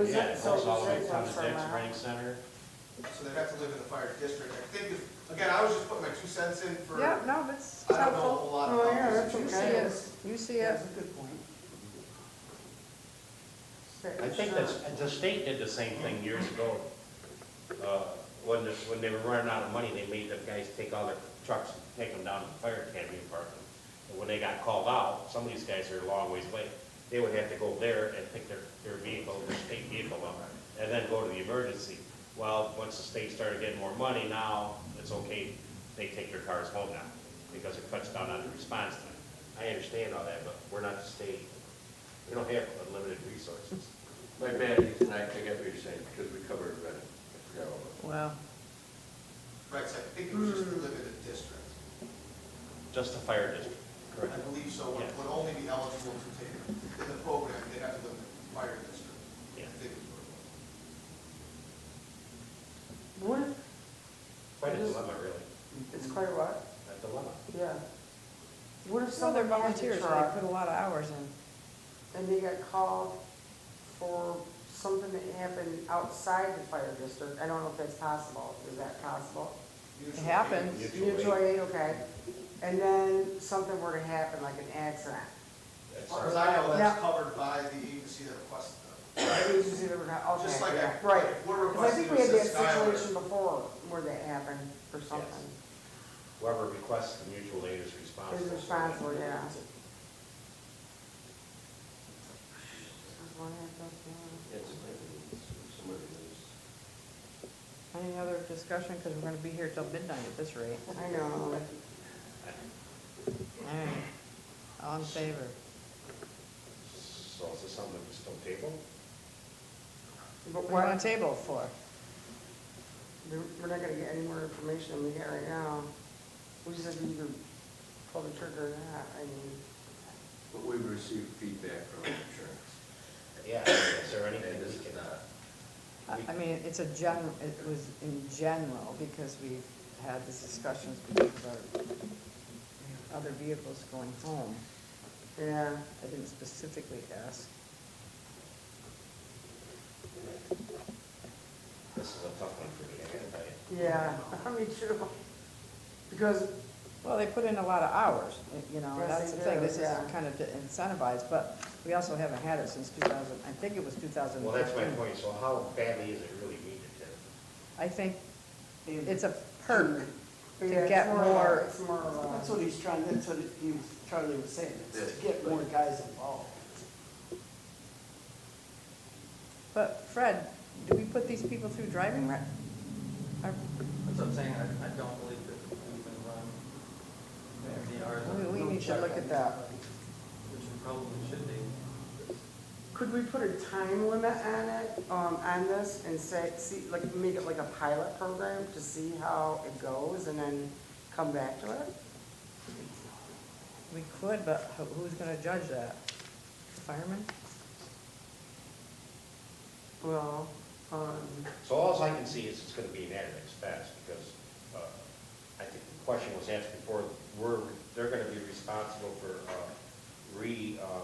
Was Yeah, that it goes all social the way rate down one to for the a next mile? rec center. So they'd have to live in the fire district. I think, if- again, I was just putting my two cents in for, Yeah, I no, that's don't know a helpful. whole lot Oh, about yeah, this. that's You see okay. it, you see it. That's a good point. I think that's, the state did the same thing years ago. Uh, When, the- when they were running out of money, they made the guys take all their trucks, and take them down to the fire academy and park them. And when they got called out, some of these guys are a long ways away, they would have to go there and pick their, their vehicle, their state vehicle up, and then go to the emergency. Well, once the state started getting more money, now it's okay, they take their cars home now, because it cuts down on the response time. I understand all that, but we're not the state, we don't have unlimited resources. My bad, Ethan, I, I get what you're saying, because we covered Reading. I forgot all about it. Wow. Right, so I think it was just to live in the district. Just the fire district. I believe so, would, would only be eligible to take it. In the program, they'd have to live in the fire district. Yeah. I think is what it was. What, Quite a dilemma, really. it's quite a lot, A dilemma. yeah. What if So they're someone has volunteers, a so they truck put a lot of hours in. and they got called for something that happened outside the fire district? I don't know if that's possible, is that possible? Mutual It happens. aid. Mutual aid. Mutual aid, okay. And then something were to happen, like an accident. As That's- far as I know, Yeah. that's covered by the agency that requested them. The agency that we're not- okay, Just like yeah, I- right. we're 'Cause I think we requesting had that to assist Skylar. situation before where that happened or something. Whoever requests the mutual aid is responsible. Is responsible, yeah. It's, it's somebody who's, Any other discussion, because we're gonna be here till midnight at this rate. I know. All right. All in favor? So is this something that's still table? But We're on what, table for. we're we're not gonna get any more information than we get right now. We just have to either pull the trigger or not, I mean, but we've received feedback from insurance. Yeah, is there anything And we this can, is not, I, I mean, it's a gen, it was in general, because we've had these discussions because of our other vehicles going home. yeah. I didn't specifically ask. this is a tough one for me, I gotta tell you. Yeah, me too. Because, Well, they put in a lot of hours, eh, you know, Yes, that's the they thing, do, this is yeah. kind of to incentivize, but we also haven't had it since two thousand, I think it was two thousand Well, that's my fifteen. point, so how badly is it really needed to? I think it's a perk to yeah, uh, it's get of a- more, It's more of That's a, what he's trying, that's what he was, Charlie was saying, is to get more guys involved. but Fred, do we put these people through driving rec? Are- That's what I'm saying, I, I don't believe that we can run FDRs. on We, a we need to look at that. Which we probably should do. could we put a time limit on it, um, on this and say, see, like, make it like a pilot program to see how it goes and then come back to it? We could, but who- who's gonna judge that? Fireman? Well, um, So alls I can see is it's gonna be an added expense, because, uh, I think the question was asked before, we're, they're gonna be responsible for, uh, re, um,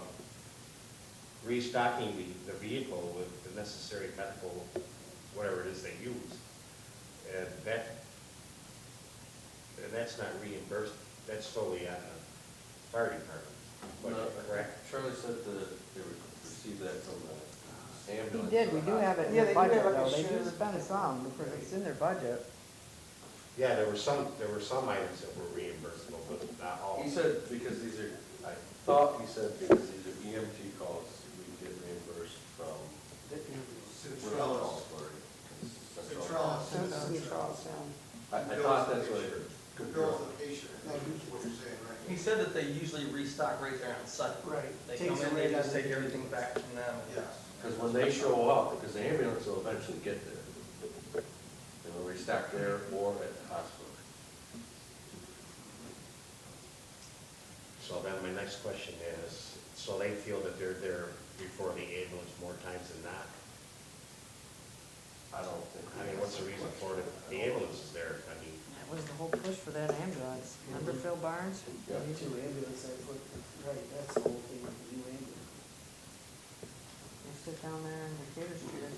restocking the, the vehicle with the necessary medical, whatever it is they use. And that, and that's not reimbursed, that's solely on the fire department, No. correct? Charlie said that they would receive that from the He ambulance. did, we do have it in Yeah, the they do have budget like a though, they do shared- spend some, because it's in their budget. Yeah, there were some, there were some items that were reimbursable, but not all. He said, because these are, I thought he said, because these are EMT calls, we get reimbursed from, we're not Centrellis. calls for it. That's all. Centrellis. that's neutral, so. I, I thought that's what. The bills of the patient, I think is what you're saying, right? He said that they usually restock right there on site. Right. They come Takes in, away they just that- take everything back from them. Yes. Because when they show up, because the ambulance will eventually get there. They will restock there or at the hospital. So then my next question is, so they feel that they're there before the ambulance more times than not? I don't think. I mean, what's the reason for it? The ambulance is there, I mean, That was the whole push for that ambulance, remember Phil Barnes? Yeah. New ambulance, I put, right, that's the whole thing, with the new ambulance. They said down there on Decatur Street, I